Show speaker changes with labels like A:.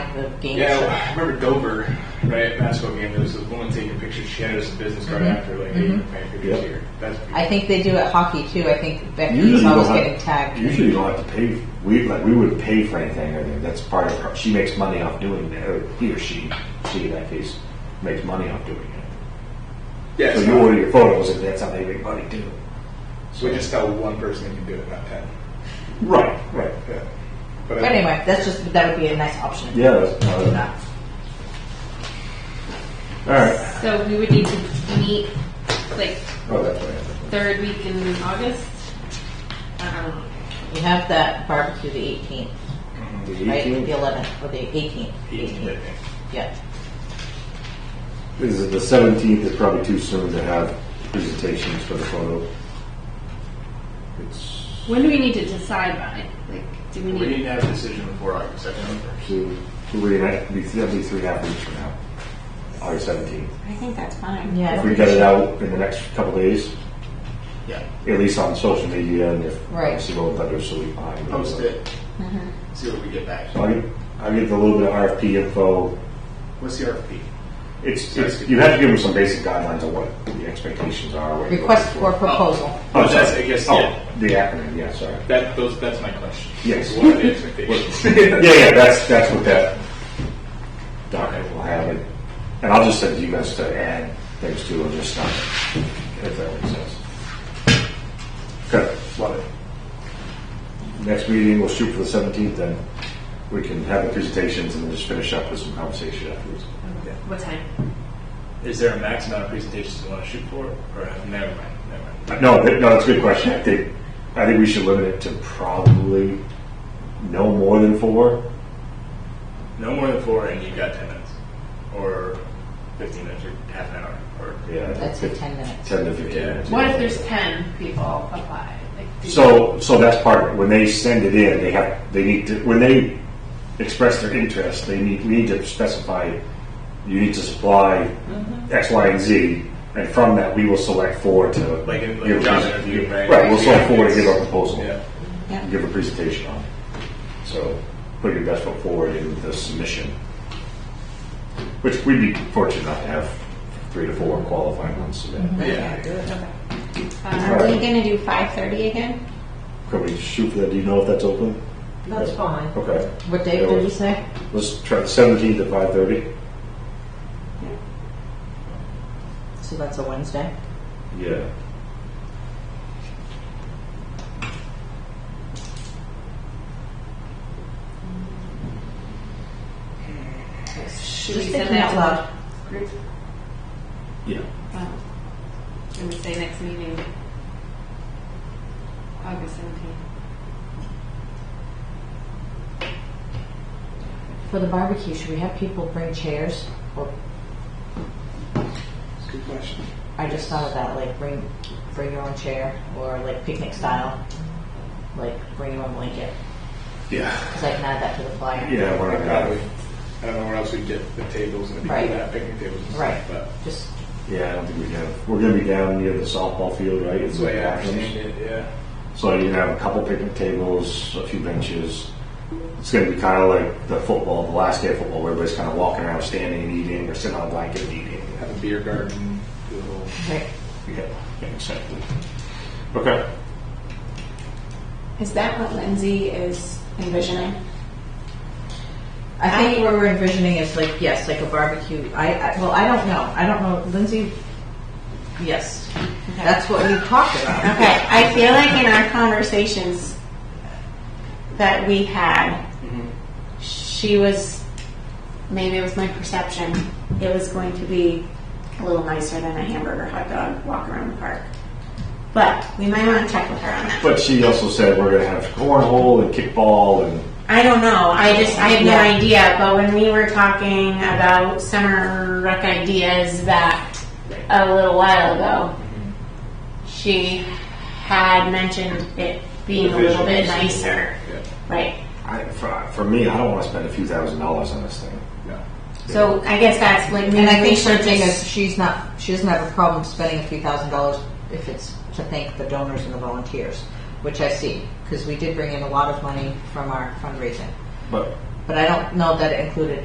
A: the game show.
B: Yeah, I remember Dover, right? Basketball game. There was a woman taking pictures. She had it as a business card after, like, hey, you're paying for this
C: Mm-hmm. Yep.
B: year. That's beautiful.
A: I think they do at hockey too. I think Becky's
C: Usually you
A: always
C: don't have-
A: getting tagged.
C: Usually you don't have to pay. We like we wouldn't pay for anything. I think that's part of. Her. She makes money off doing that. Or he or she, she in that case, makes money off doing it.
B: yeah,
C: So
B: so
C: you order your photos, and that's how they make money too.
B: so we just tell one person they can do it, not ten.
C: Right. Right.
B: Yeah. But
A: But
B: I-
A: anyway, that's just that would be a nice option.
C: Yeah. That's, uh, all right.
D: So we would need to meet like
C: Oh, that's right.
D: third week in August. Um,
A: You have that barbecue the 18th,
C: The
A: right?
C: 18th?
A: The 11th or the 18th. 18th. Yeah.
C: This is the seventeenth is probably too soon to have presentations for the photo. It's
D: when do we need to decide by? Like, do we
B: We need
D: need?
B: to have a decision before August second.
C: two, three and a half, be- that'd be three and a half weeks from now, August seventeenth.
E: I think that's fine.
A: Yeah.
C: If we get it out in the next couple days,
B: Yeah.
C: at least on social media and if
A: Right.
C: obviously all letters, so we find.
B: Post it.
C: Mm-hmm.
B: See what we get back.
C: So I get, I get a little bit of RFP info.
B: What's the RFP?
C: It's, it's, you have to give them some basic guidelines of what the expectations are. what you're
A: Request
C: looking
A: for proposal.
C: Oh,
B: Oh, that's, I guess,
C: Oh,
B: yeah.
C: the acronym, yeah, sorry.
B: That, those, that's my question.
C: Yes.
B: What are the expectations?
C: Yeah, yeah, that's, that's what that document will have it. And I'll just send you guys to add things to and just stop it, if that makes sense. Okay.
B: Love it.
C: Next meeting, we'll shoot for the seventeenth, then we can have the presentations and then just finish up with some conversation afterwards.
D: What time?
B: Is there a max amount of presentations you want to shoot for? Or uh, never mind, never mind.
C: No, th- no, that's a good question. I think, I think we should limit it to probably no more than four.
B: No more than four, and you've got 10 minutes, or 15 minutes, or half an hour, or
C: Yeah. I think
A: That's in
C: fif-
A: 10 minutes.
C: Ten to fifteen
B: Yeah.
C: minutes.
D: What if there's ten people apply? Like, do-
C: So, so that's part of it. When they send it in, they have, they need to, when they express their interest, they need, we need to specify, you need to supply X, Y, and Z. And from that, we will select four to.
B: Like in- like
C: give a
B: job
C: pres-
B: interview, right?
C: Right, we'll select four to
B: Yeah.
C: give a proposal,
B: yeah.
E: Yeah.
C: give a presentation on. it. So put your best foot forward in the submission. Which we'd be fortunate enough to have three to four qualified ones
B: Mm-hmm.
C: submitted.
B: Yeah.
E: Uh, Are we gonna do five thirty again?
C: Can we shoot for that? Do you know if that's open?
A: That's fine.
C: Okay.
A: What date did you say?
C: Let's try seventeenth at five thirty.
A: So that's a Wednesday.
C: Yeah.
D: Should
A: Just
D: we send
A: thinking
D: that
A: out
D: to
A: loud.
D: the group?
C: Yeah.
D: Can Um, we say next meeting? August seventeenth.
A: For the barbecue, should we have people bring chairs? Or
B: That's a good question.
A: I just thought of that, like bring bring your own chair or like picnic style, like bring your own blanket.
B: Yeah.
A: Because I can add that to the flyer.
C: Yeah, we're not
B: Probably.
C: gonna,
B: I don't know where else we'd get the tables and the people
A: Right.
B: that have picnic tables and
A: Right.
B: stuff, but
A: Just
C: yeah, I don't think we have, we're gonna be down near the softball field, right?
B: that's the way I understand it, yeah.
C: So you can have a couple picnic tables, a few benches. It's gonna be kinda like the football, the last day of football, where everybody's kinda walking around, standing and eating, or sitting on a blanket and eating.
B: Have a beer garden, do a whole.
A: right.
C: Yeah, yeah, exactly. Okay.
E: Is that what Lindsay is envisioning?
A: I think what we're envisioning is like yes, like a barbecue. I, I well, I don't know. I don't know, Lindsay. Yes, that's what we talked about.
E: Okay, I feel like in our conversations that we had, she was, maybe it was my perception, it was going to be a little nicer than a hamburger hot dog walk around the park. But we might want to check with her on that.
C: But she also said we're gonna have cornhole and kickball and,
E: I don't know. I just I have no
A: Yeah.
E: idea. But when we were talking about summer rec ideas back a little while ago, she had mentioned it being a little bit nicer,
B: Yeah.
E: right?
C: I, for, for me, I don't wanna spend a few thousand dollars on this thing.
B: No.
E: So I guess that's like
A: And I think her
E: should
A: thing
E: just-
A: is she's not. She doesn't have a problem spending a few thousand dollars if it's to thank the donors and the volunteers, which I see because we did bring in a lot of money from our fundraising.
C: But
A: But I don't know that it included